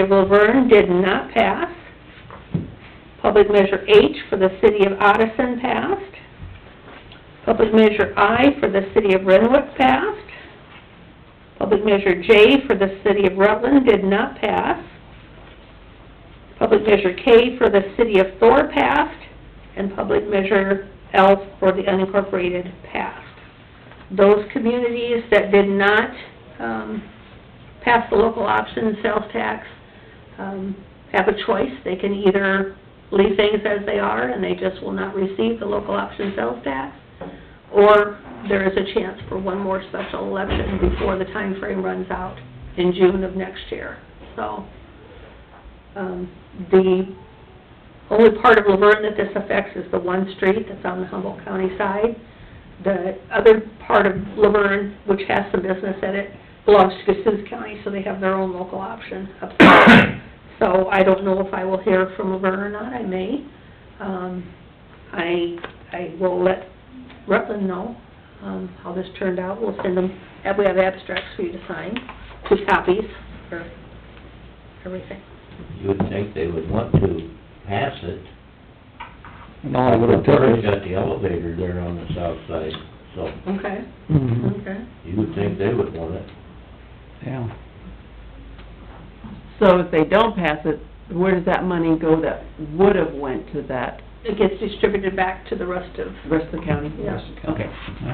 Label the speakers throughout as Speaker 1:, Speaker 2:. Speaker 1: of Laverne did not pass. Public measure H for the city of Odison passed. Public measure I for the city of Renwick passed. Public measure J for the city of Rutland did not pass. Public measure K for the city of Thor passed, and public measure L for the unincorporated passed. Those communities that did not, um, pass the local option sales tax, um, have a choice. They can either leave things as they are and they just will not receive the local option sales tax, or there is a chance for one more special election before the time frame runs out in June of next year. So, um, the only part of Laverne that this affects is the one street that's on the Humboldt County side. The other part of Laverne, which has some business in it, belongs to Cassuth County, so they have their own local option up there. So I don't know if I will hear from Laverne or not, I may. Um, I, I will let Rutland know, um, how this turned out. We'll send them, we have abstracts for you to sign, two copies for everything.
Speaker 2: You would think they would want to pass it.
Speaker 3: And all it would have
Speaker 2: Thor's
Speaker 3: taken,
Speaker 2: got the elevator there on the south side, so
Speaker 1: Okay,
Speaker 3: Mhm,
Speaker 1: okay.
Speaker 2: you would think they would want it.
Speaker 3: yeah.
Speaker 4: So if they don't pass it, where does that money go that would have went to that,
Speaker 1: It gets distributed back to the rest of,
Speaker 4: the rest of the county?
Speaker 1: yeah.
Speaker 4: Okay.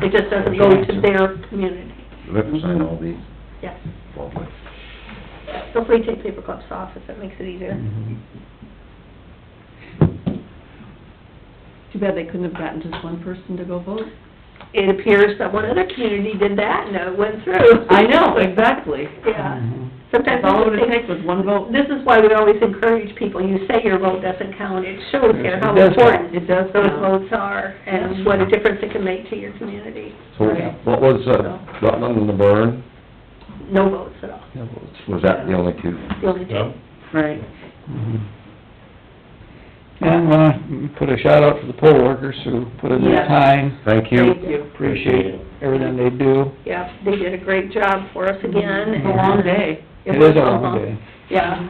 Speaker 1: It just doesn't go to their community,
Speaker 5: You have to sign
Speaker 3: Mm-hmm.
Speaker 5: all these,
Speaker 1: yes.
Speaker 5: probably.
Speaker 1: Hopefully take paper clips off if that makes it easier.
Speaker 3: Mhm.
Speaker 4: Too bad they couldn't have gotten just one person to go vote.
Speaker 1: It appears that one other community did that and it went through.
Speaker 4: I know, exactly.
Speaker 1: Yeah.
Speaker 3: Mhm.
Speaker 1: Sometimes
Speaker 4: That's all it
Speaker 1: I
Speaker 4: would
Speaker 1: think,
Speaker 4: take was one vote.
Speaker 1: this is why we always encourage people, you say your vote doesn't count, it shows here how
Speaker 3: It does count.
Speaker 1: important
Speaker 4: It does
Speaker 1: those
Speaker 4: count.
Speaker 1: votes are and what a difference it can make to your community.
Speaker 5: So
Speaker 4: Right.
Speaker 5: what was, uh, Rutland and the burn,
Speaker 1: No votes at all,
Speaker 3: Yeah, well, it's-
Speaker 5: was that the only two?
Speaker 1: the only two.
Speaker 4: Right.
Speaker 3: mhm. And, uh, put a shout out to the poll workers who put in their
Speaker 4: Yes.
Speaker 3: time,
Speaker 5: Thank you.
Speaker 4: Thank you.
Speaker 3: appreciate everything they do.
Speaker 1: Yeah, they did a great job for us again.
Speaker 4: It's a long day.
Speaker 3: It
Speaker 1: was
Speaker 3: is a long day.
Speaker 1: Yeah.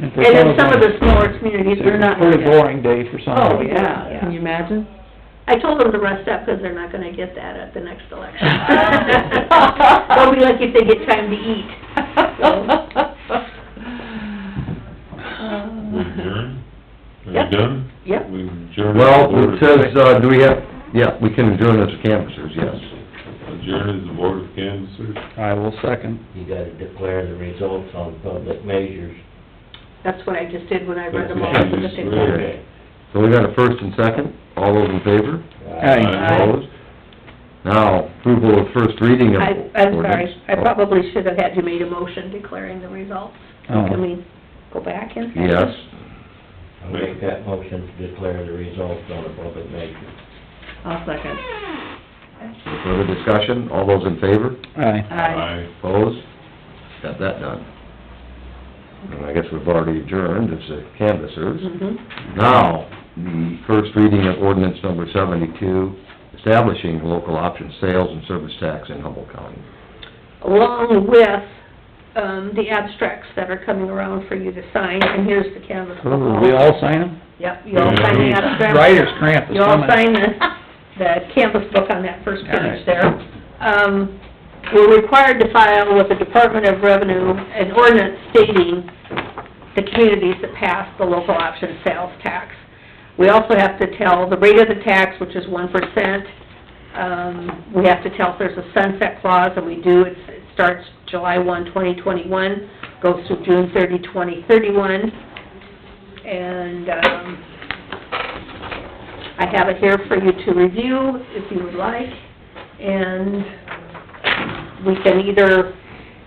Speaker 3: And for
Speaker 1: And in
Speaker 3: some of
Speaker 1: the
Speaker 3: them,
Speaker 1: smaller communities,
Speaker 3: it's
Speaker 1: we're
Speaker 3: a
Speaker 1: not.
Speaker 3: pretty boring day for some
Speaker 4: Oh,
Speaker 3: of them.
Speaker 4: yeah, can you imagine?
Speaker 1: I told them to rest up because they're not gonna get that at the next election. They'll be lucky if they get time to eat.
Speaker 6: We adjourn? Are
Speaker 1: Yep.
Speaker 6: we done?
Speaker 1: Yep.
Speaker 6: We adjourn.
Speaker 5: Well, it says, uh, do we have, yeah, we can adjourn as canvassers, yes.
Speaker 6: Adjourn is the board of canvassers.
Speaker 3: I will second.
Speaker 2: You gotta declare the results on public measures.
Speaker 1: That's what I just did when I read them all.
Speaker 6: That's
Speaker 1: so
Speaker 6: what
Speaker 1: that
Speaker 6: she
Speaker 1: they-
Speaker 6: just read.
Speaker 2: Okay.
Speaker 5: So we got a first and second, all those in favor?
Speaker 3: Aye.
Speaker 5: Opposed? Now, approval of first reading of
Speaker 1: I, I'm sorry,
Speaker 5: ordinance.
Speaker 1: I probably should have had you made a motion declaring the results.
Speaker 3: Oh.
Speaker 1: Can we go back and? second?
Speaker 5: Yes,
Speaker 2: I'll make that motion to declare the results on a public measure.
Speaker 4: I'll second.
Speaker 5: Any further discussion, all those in favor?
Speaker 3: Aye.
Speaker 6: Aye.
Speaker 5: Opposed? Got that done. And I guess we've already adjourned as the canvassers.
Speaker 1: Mhm.
Speaker 5: Now, the first reading of ordinance number seventy-two, establishing local option sales and service tax in Humboldt County.
Speaker 1: Along with, um, the abstracts that are coming around for you to sign, and here's the canvas.
Speaker 3: Will Oh, we all sign them?
Speaker 1: Yep, you all sign the abstract.
Speaker 3: Writer's cramp is
Speaker 1: You all
Speaker 3: coming.
Speaker 1: sign the, the canvas book on that first
Speaker 3: All right.
Speaker 1: page there. Um, we're required to file with the Department of Revenue an ordinance stating the communities that pass the local option sales tax. We also have to tell the rate of the tax, which is one percent. Um, we have to tell if there's a sunset clause, and we do. It's- It starts July one, twenty twenty-one, goes through June thirty, twenty thirty-one. And, um, I have it here for you to review if you would like, and we can either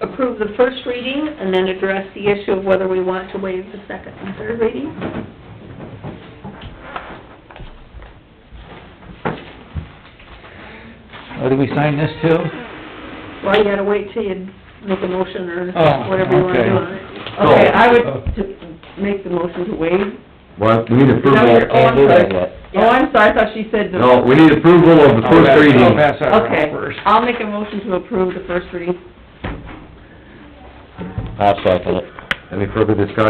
Speaker 1: approve the first reading and then address the issue of whether we want to waive the second and third reading.
Speaker 3: Oh, do we sign this too?
Speaker 1: Well, you gotta wait till you make a motion or
Speaker 3: Oh,
Speaker 1: whatever you wanna
Speaker 3: okay. Uh,
Speaker 1: do on it.
Speaker 4: Okay, I would t- make the motion to waive.
Speaker 5: Well, we need
Speaker 4: Is that what
Speaker 5: approval,
Speaker 4: you're- oh, I'm
Speaker 2: Can't do
Speaker 4: sorry.
Speaker 2: that
Speaker 4: Oh, I'm sorry, I thought she said the...
Speaker 5: no, we need approval of the
Speaker 3: I'll
Speaker 5: first
Speaker 3: pass-
Speaker 5: reading.
Speaker 3: I'll pass that around
Speaker 4: Okay,
Speaker 3: first.
Speaker 4: I'll make a motion to approve the first reading.
Speaker 2: I'll second it.
Speaker 5: Any further discussion?